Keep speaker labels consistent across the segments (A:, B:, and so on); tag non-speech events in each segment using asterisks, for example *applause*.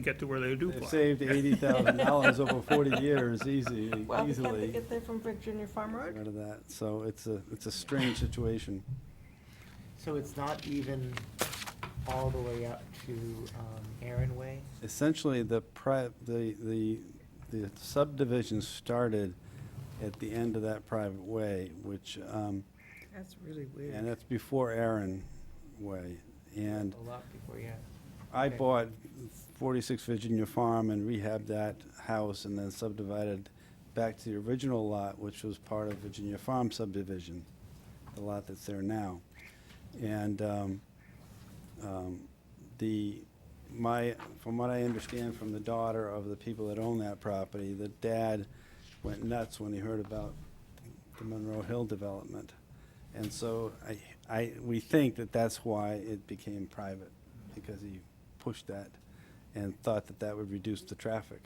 A: get to where they do
B: They've
A: plow.
B: saved eighty thousand dollars over
A: *laughs*
B: forty years, easy,
C: Well, we can't they
B: easily.
C: get there from Brick Junior Farm Road?
B: Out of that, so it's a, it's a strange situation.
D: So it's not even all the way up to um, Aaron Way?
B: Essentially, the pri, the, the, the subdivision started at the end of that private way, which, um,
C: That's really
B: and
C: weird.
B: that's before Aaron Way. And
D: A lot before, yeah.
B: I
D: Okay.
B: bought 46 Virginia Farm and rehabbed that house and then subdivided back to the original lot, which was part of Virginia Farm subdivision, the lot that's there now. And um, um, the, my, from what I understand from the daughter of the people that own that property, the dad went nuts when he heard about the Monroe Hill development. And so I, I, we think that that's why it became private, because he pushed that and thought that that would reduce the traffic.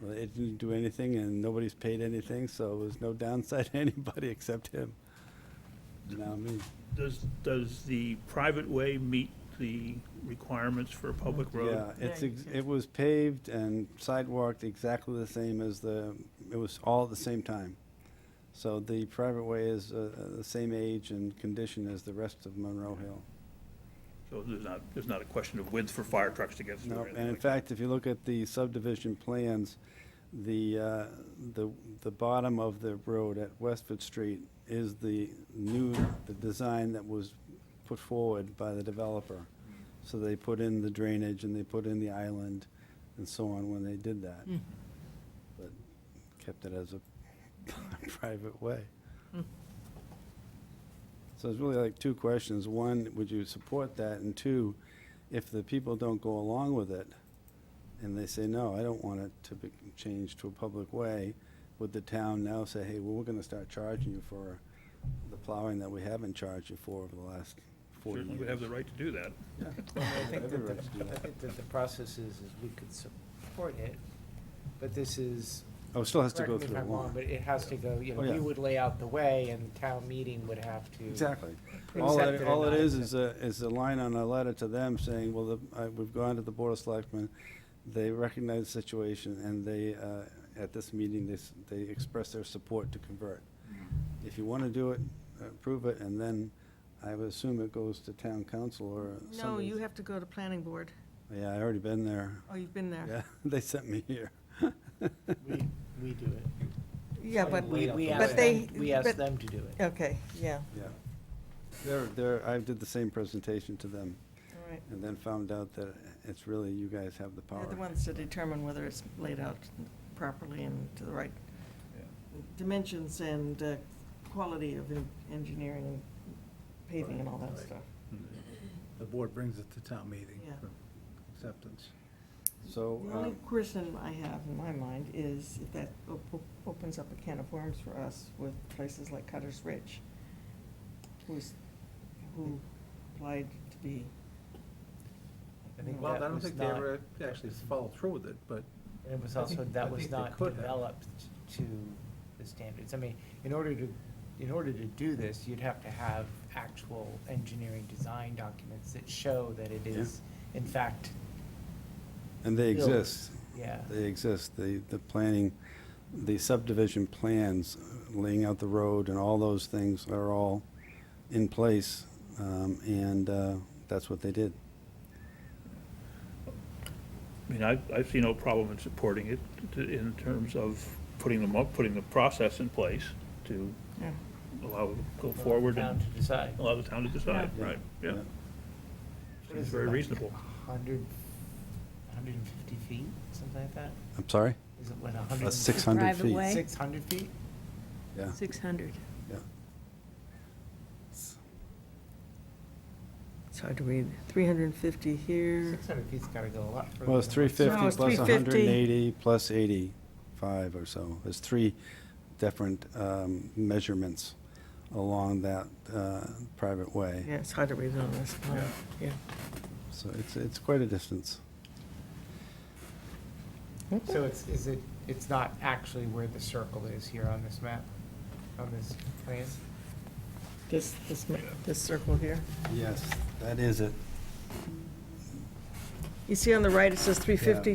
B: Well, it didn't do anything and nobody's paid anything, so there's no downside to *laughs* anybody except him. Now me.
A: Does, does the private way meet the requirements for a public road?
B: Yeah, it's,
C: Yeah,
B: ex-
C: yeah.
B: it was paved and sidewalked exactly the same as the, it was all at the same time. So the private way is uh, uh, the same age and condition as the rest of Monroe Hill.
A: So there's not, there's not a question of width for fire trucks to get through. or
B: No,
A: anything
B: and in
A: like that.
B: fact, if you look at the subdivision plans, the, uh, the, the bottom of the road at Westford Street is the new, the design that was put forward by the developer. So they put in the drainage and they put in the island and so on when they did that. But kept it as a *laughs* private way. So it's really like two questions. One, would you support that? And two, if the people don't go along with it and they say, no, I don't want it to be changed to a public way, would the town now say, hey, well, we're gonna start charging you for the plowing that we haven't charged you for over the last forty
A: Certainly would have
B: years?
A: the right to do that.
D: Well, I think
B: Every
D: that
B: right to
D: the,
B: do
D: I
B: that.
D: think that the process is, is we could support it, but this is.
B: Oh, it still has to
D: correct
B: go
D: me if
B: through the
D: I'm wrong,
B: law.
D: But it has to go, you know,
B: Oh, yeah.
D: you would lay out the way and the town meeting would have to.
B: Exactly. All
D: Accept
B: it,
D: it or
B: all it
D: not
B: is, is a, is a line on a letter to them saying, well, the- I- we've gone to the Board of Selectmen, they recognize the situation, and they, uh, at this meeting, they, s- they express their support to convert. If you want to do it, approve it, and then I would assume it goes to town council or
C: No,
B: somebody.
C: you have to go to planning board.
B: Yeah, I already been there.
C: Oh, you've been there.
B: Yeah, *laughs* they sent me here.
D: We, we do it.
C: Yeah, but,
D: We, we
C: but
D: ask
C: they-
D: them, we ask
C: but-
D: them to do it.
C: okay, yeah,
B: Yeah. They're, they're, I did the same presentation to them,
C: all right.
B: and then found out that it's really, you guys have the power.
C: They're the ones to determine whether it's laid out properly and to the right
A: Yeah.
C: dimensions and uh, quality of en- engineering and paving and all that
E: Right.
C: stuff.
E: The board brings it to town meeting
C: Yeah.
E: for acceptance.
B: So.
C: The
B: uh,
C: only question I have in my mind is if that op- opens up a can of worms for us with places like Cutter's Ridge, who's, who applied to be.
D: I think
E: Well, I
D: that
E: don't
D: was
E: think they
D: not-
E: ever actually followed through with it, but
D: And it was
E: I
D: also,
E: think- I
D: that was
E: think they
D: not
E: could have.
D: developed to the standards. I mean, in order to, in order to do this, you'd have to have actual engineering design documents that show that it
B: Yeah.
D: is, in fact,
B: And they
D: built.
B: exist.
D: yeah.
B: They exist. The, the planning, the subdivision plans, uh, laying out the road and all those things are all in place. um, And uh, that's what they did.
A: I mean, I, I see no problem in supporting it to- in terms of putting them up, putting the process in place to
C: Yeah.
A: allow, it to go
D: for the
A: forward
D: Town
A: and
D: to decide.
A: allow the town to decide,
B: Yeah.
A: right, yeah.
B: Yeah.
D: What
A: Seems
D: is it,
A: very
D: like
A: reasonable.
D: 100 150 feet, something like that?
B: I'm sorry?
D: Is it like 100?
B: That's 600
F: Private
B: feet.
F: way?
D: 600 feet?
B: Yeah,
F: 600.
B: yeah.
C: It's hard to read. Three hundred and fifty here.
D: 600 feet's got to go a lot further.
B: Well, it's
D: than what's-
B: 350
C: it's
B: plus
C: 350.
B: 180 plus 85 or so. There's three different um, measurements along that uh, private way.
C: Yeah, it's hard to read on this plan. Yeah.
B: So it's, it's quite a distance.
C: Hmm?
D: So it's, is it, it's not actually where the circle is here on this map, on this plan?
C: This, this, ma- this circle here.
B: Yes, that is it.
C: You see on the right, it says three fifty